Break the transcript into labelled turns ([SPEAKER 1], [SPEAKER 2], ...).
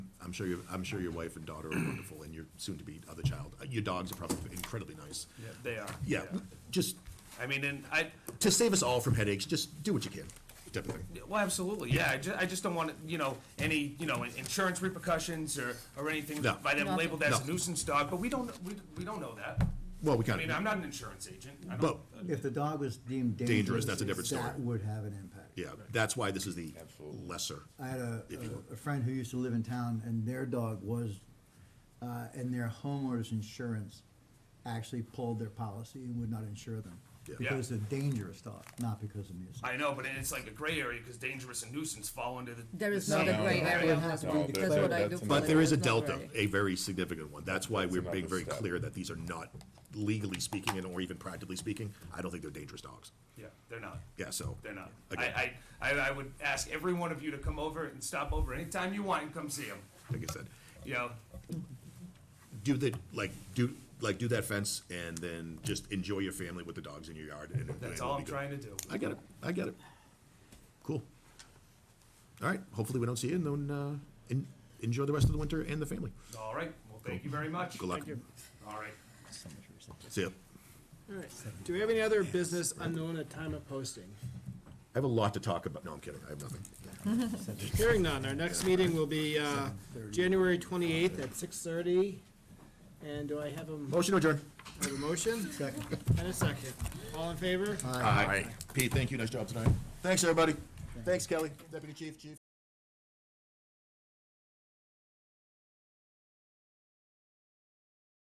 [SPEAKER 1] I'm sure your, I'm sure your wife and daughter are wonderful, and your soon-to-be other child. Uh, Your dogs are probably incredibly nice.
[SPEAKER 2] Yeah, they are.
[SPEAKER 1] Yeah, just,
[SPEAKER 2] I mean, and I,
[SPEAKER 1] to save us all from headaches, just do what you can, type of thing.
[SPEAKER 2] well, absolutely, yeah, I ju- I just don't want, you know, any, you know, insurance repercussions or, or anything
[SPEAKER 1] No.
[SPEAKER 2] by them labeled as a
[SPEAKER 1] No.
[SPEAKER 2] nuisance dog, but we don't, we, we don't know that.
[SPEAKER 1] Well, we
[SPEAKER 2] I
[SPEAKER 1] kind
[SPEAKER 2] mean, I'm
[SPEAKER 1] of,
[SPEAKER 2] not an insurance agent, I
[SPEAKER 1] but,
[SPEAKER 2] don't,
[SPEAKER 3] If the dog was deemed dangerous.
[SPEAKER 1] Dangerous, that's a different
[SPEAKER 3] That
[SPEAKER 1] story.
[SPEAKER 3] would have an impact.
[SPEAKER 1] yeah, that's why this is the lesser.
[SPEAKER 3] I had a,
[SPEAKER 1] If you-
[SPEAKER 3] a- a friend who used to live in town and their dog was, uh, and their homeowner's insurance actually pulled their policy and would not insure them.
[SPEAKER 1] Yeah.
[SPEAKER 3] Because it's a dangerous dog, not because of music.
[SPEAKER 2] I know, but it's like a gray area, because dangerous and nuisance fall under the.
[SPEAKER 4] There
[SPEAKER 2] the
[SPEAKER 4] is not a
[SPEAKER 2] same-
[SPEAKER 4] gray
[SPEAKER 3] No,
[SPEAKER 4] area
[SPEAKER 3] it
[SPEAKER 4] on
[SPEAKER 3] has
[SPEAKER 4] this
[SPEAKER 3] to be
[SPEAKER 4] one, that's what I
[SPEAKER 5] declared,
[SPEAKER 4] do.
[SPEAKER 5] that's
[SPEAKER 4] feel
[SPEAKER 1] But there
[SPEAKER 4] it
[SPEAKER 1] is a
[SPEAKER 4] not
[SPEAKER 1] delta,
[SPEAKER 4] gray.
[SPEAKER 1] a very significant one. That's why we're being
[SPEAKER 5] another
[SPEAKER 1] very
[SPEAKER 5] step.
[SPEAKER 1] clear that these are not legally speaking and or even practically speaking, I don't think they're dangerous dogs.
[SPEAKER 2] Yeah, they're not.
[SPEAKER 1] Yeah, so.
[SPEAKER 2] They're not.
[SPEAKER 1] Again,
[SPEAKER 2] I, I, I, I would ask every one of you to come over and stop over anytime you want and come see them,
[SPEAKER 1] like I said,
[SPEAKER 2] you know?
[SPEAKER 1] do the, like, do, like, do that fence and then just enjoy your family with the dogs in your yard and. and
[SPEAKER 2] That's
[SPEAKER 1] it'll
[SPEAKER 2] all
[SPEAKER 1] be
[SPEAKER 2] I'm
[SPEAKER 1] good.
[SPEAKER 2] trying to do.
[SPEAKER 1] I get it, I get it. Cool. All right, hopefully we don't see you and then, uh, en- enjoy the rest of the winter and the family.
[SPEAKER 2] All right, well, thank you very much.
[SPEAKER 1] Good luck.
[SPEAKER 2] Thank you. All right.
[SPEAKER 1] See ya.
[SPEAKER 6] All right. Do we have any other business unknown at time of posting?
[SPEAKER 1] I have a lot to talk about. No, I'm kidding. I have nothing.
[SPEAKER 6] Hearing none. Our next meeting will be uh, January 28th at 6:30. And do I have a mo-
[SPEAKER 1] Motion to adjourn.
[SPEAKER 6] I have a motion
[SPEAKER 3] Second.
[SPEAKER 6] and a second? All in favor?
[SPEAKER 1] Aye. Pete, thank you. Nice job tonight. Thanks, everybody. Thanks, Kelly, Deputy Chief, Chief.